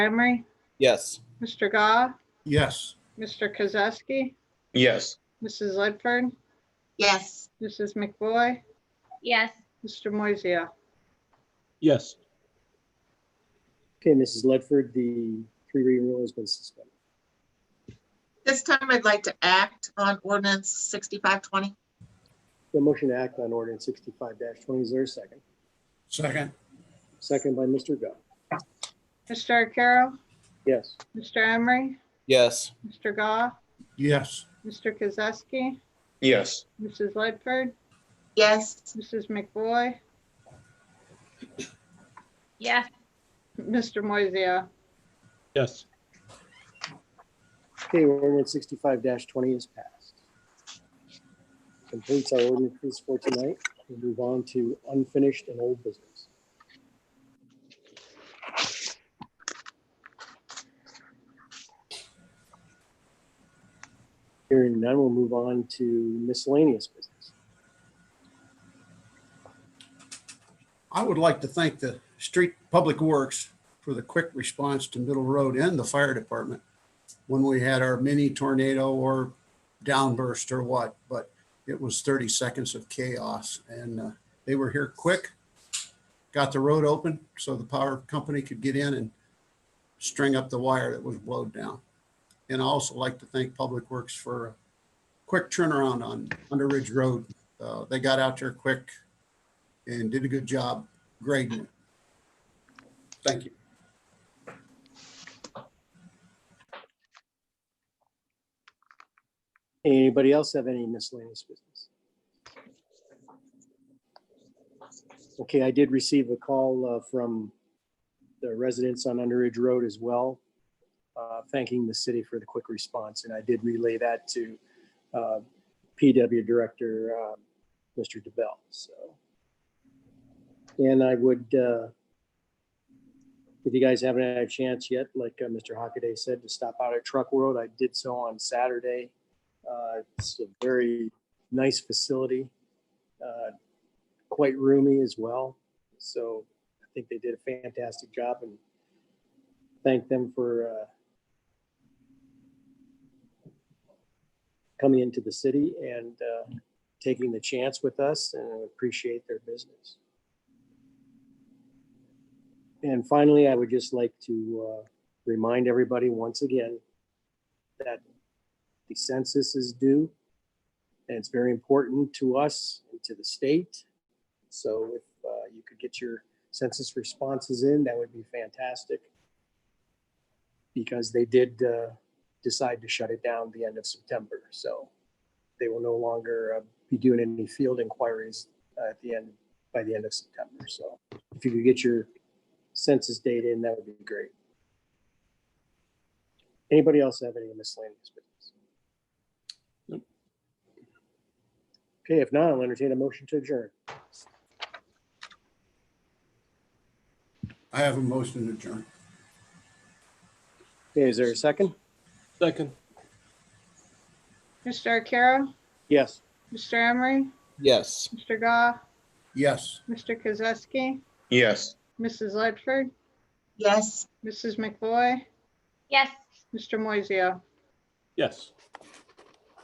Emery, Yes. Mr. Gah, yes, Mr. Kozowski, yes, Mrs. Ledford, yes, Mrs. McBoy, yes, Mr. Moisia. yes, Okay, Mrs. Ledford, the three reading rule has been suspended. this time I'd like to act on ordinance sixty-five twenty. The motion to act on ordinance sixty-five twenty, is there a second? second, Second by Mr. Gah. Mr. Carroll, Yes, Mr. Emery, Yes. Mr. Gah, yes, Mr. Kozowski, yes, Mrs. Ledford, Yes, Mrs. McBoy, yes, Mr. Moisia. yes, okay, ordinance sixty-five twenty is passed. Completes our ordinances for tonight. We move on to unfinished and old business. Hearing none, we'll move on to miscellaneous business. I would like to thank the street public works for the quick response to Middle Road and the fire department when we had our mini tornado or downburst or what, but it was 30 seconds of chaos and uh, they were here quick, got the road open so the power company could get in and string up the wire that was blown down. And I also like to thank Public Works for a quick turnaround on Under Ridge Road. Uh, They got out there quick and did a good job grading it. Thank you. Anybody else have any miscellaneous business? Okay, I did receive a call uh, from the residents on Underage Road as well, uh, thanking the city for the quick response, and I did relay that to uh, PW Director, uh, Mr. DeBell, so. And I would, uh, if you guys haven't had a chance yet, like uh, Mr. Hockaday said, to stop out at Truck World, I did so on Saturday. Uh, It's a very nice facility, uh, quite roomy as well. So I think they did a fantastic job and thank them for uh, coming into the city and uh, taking the chance with us and appreciate their business. And finally, I would just like to uh, remind everybody once again that the census is due. And it's very important to us and to the state. So if uh, you could get your census responses in, that would be fantastic. Because they did uh, decide to shut it down the end of September, so they will no longer uh, be doing any field inquiries uh, at the end, by the end of September. So if you could get your census data in, that would be great. Anybody else have any miscellaneous business? Okay, if not, I'll entertain a motion to adjourn. I have a motion to adjourn. Okay, is there a second? second, Mr. Carroll, Yes. Mr. Emery, Yes. Mr. Gah, Yes. Mr. Kozowski, yes. Mrs. Ledford, yes. Mrs. McBoy, yes. Mr. Moisia. yes.